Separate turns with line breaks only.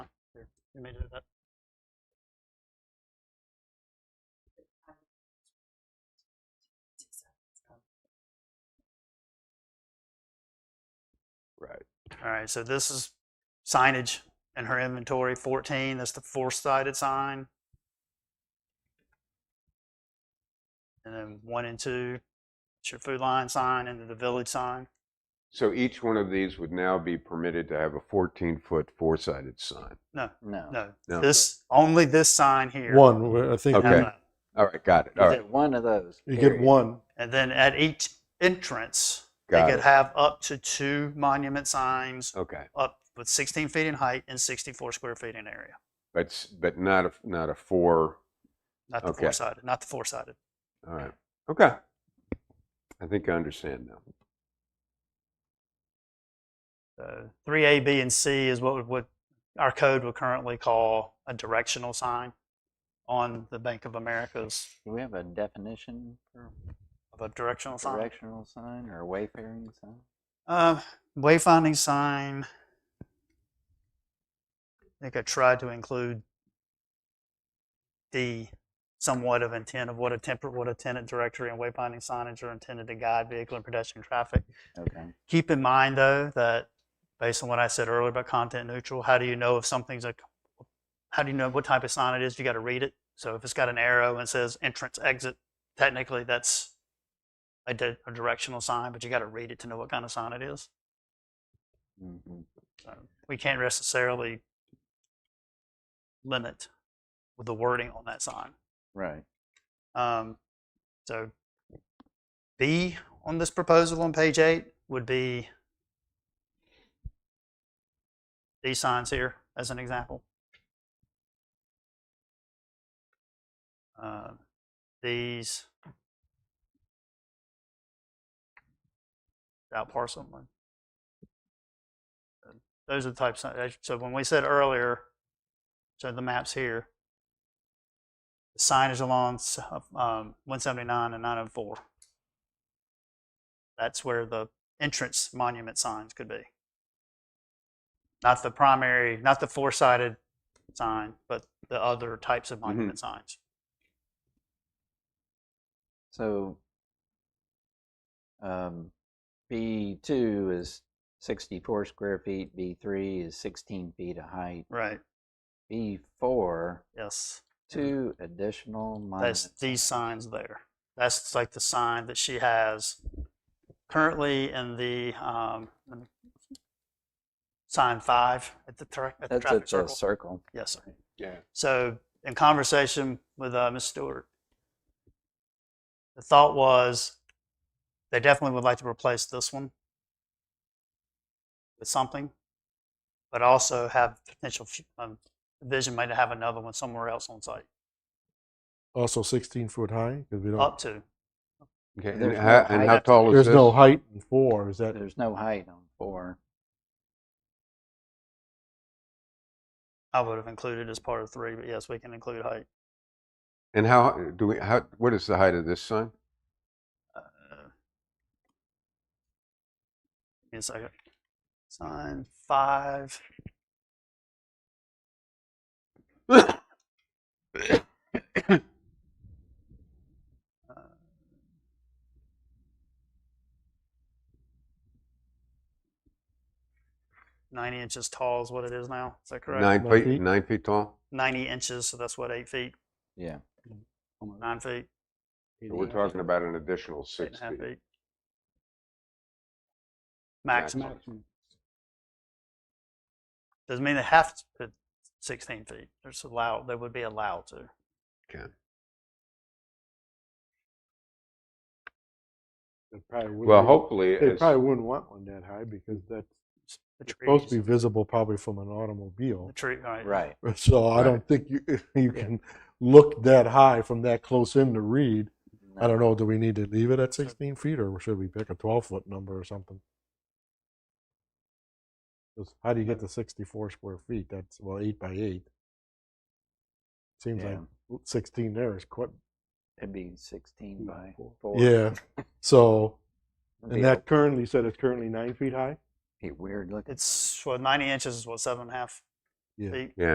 You made it up.
Right.
All right, so this is signage in her inventory, fourteen, that's the four-sided sign. And then one and two, it's your food line sign and then the village sign.
So each one of these would now be permitted to have a 14-foot four-sided sign.
No.
No,
No.
this, only this sign here.
One, w- I think.
No,
Okay.
no.
All right, got it.
You
All
get
right,
one of those.
You get
period.
one.
And then at each entrance, they
got
could
it.
have up to two monument signs
Okay,
up with sixteen feet in height and sixty-four square feet in area.
but s- but not a not a four.
Not the
Okay.
four-sided, not the four-sided.
All right. Okay. I think I understand now.
So three A, B, and C is what would- what our code would currently call a directional sign on the Bank of America's
Do we have a definition for
of a directional sign.
directional sign or a wayfaring sign?
Uh, wayfinding sign. I think I tried to include the somewhat of intent of what a temper, what a tenant directory and wayfinding signage are intended to guide vehicle and pedestrian traffic.
Okay.
Keep in mind, though, that based on what I said earlier about content neutral, how do you know if something's a, how do you know what type of sign it is? You got to read it. So if it's got an arrow and says entrance, exit, technically that's a, di- a directional sign, but you got to read it to know what kind of sign it is.
Mhm.
So we can't necessarily limit with the wording on that sign.
Right.
Um, so B on this proposal on page eight would be these signs here as an example. Um, these out parcel one. Those are the types. of- So when we said earlier, so the maps here, signage along s- um, 179 and 904. That's where the entrance monument signs could be. Not the primary, not the four-sided sign, but the other types of monument signs.
So um, B2 is 64 square feet, B3 is 16 feet of height,
Right.
B4,
Yes.
two additional
Mm-hmm. That's
monuments.
these signs there. That's like the sign that she has currently in the um, let me- sign five at the, tra- at the
That's at
traffic
the
circle.
circle.
Yes, sir.
Yeah.
So, in conversation with uh, Ms. Stewart, the thought was they definitely would like to replace this one with something, but also have potential fu- um, vision might have another one somewhere else on site,
Also 16 foot high because we
up
don't.
to.
Okay. And
There's no
how, and
height.
how tall is
There's
this?
no height in four. Is that
There's no height on four.
I would have included as part of three, but yes, we can include height.
And how do we? How what is the height of this sign?
Uh, give me a second. Sign five. Uh, Ninety inches tall is what it is now. Is that correct?
Nine
Nine
feet.
feet.
Nine feet tall.
Ninety inches, so that's what eight feet,
Yeah.
nine feet,
So we're talking about an additional
eight and
six
a half
feet.
feet. Maximum. Doesn't mean they have to put sixteen feet. They're just allowed. They would be allowed to.
Well, hopefully,
They
as,
probably wouldn't want one that high because that's
The
supposed to be
trees-
visible probably from an automobile.
The tree, right.
Right.
So I
Right.
don't think you you can look that high from that close in to read. I don't know. Do we need to leave it at 16 feet, or should we pick a 12 foot number or something? 'Cause How do you get to 64 square feet? That's well eight by eight. Seems
Yeah.
like 16 there is quite
It'd be 16 by four.
yeah. So
It'd be
and that currently said it's currently nine feet high.
a weird looking.
It's well, ninety inches is what seven and a half
Yeah.
feet.